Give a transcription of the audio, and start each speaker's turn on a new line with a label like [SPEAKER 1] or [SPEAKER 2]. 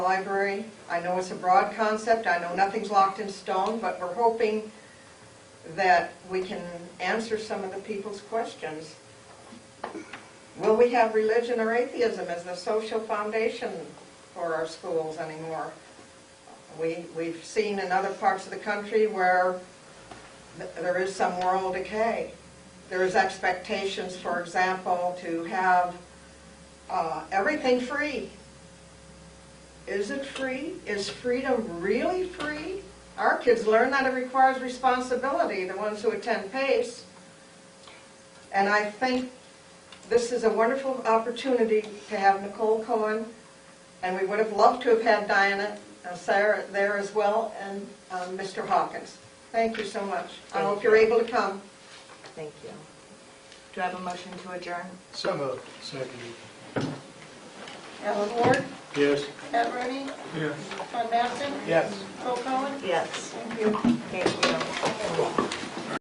[SPEAKER 1] library. I know it's a broad concept, I know nothing's locked in stone, but we're hoping that we can answer some of the people's questions. Will we have religion or atheism as the social foundation for our schools anymore? We, we've seen in other parts of the country where th- there is some moral decay. There is expectations, for example, to have uh, everything free. Is it free? Is freedom really free? Our kids learn that it requires responsibility, the ones who attend PACE. And I think this is a wonderful opportunity to have Nicole Cohen, and we would have loved to have had Diana uh, Sarah there as well, and um, Mr. Hawkins. Thank you so much. I hope you're able to come.
[SPEAKER 2] Thank you. Do I have a motion to adjourn?
[SPEAKER 3] So moved. Second.
[SPEAKER 4] Alan Ward,
[SPEAKER 3] Yes.
[SPEAKER 4] Pat Rooney,
[SPEAKER 3] Yes.
[SPEAKER 4] Ron Mason,
[SPEAKER 3] Yes.
[SPEAKER 4] Bill Cohen.
[SPEAKER 2] Yes.
[SPEAKER 4] Thank you.
[SPEAKER 2] Thank you.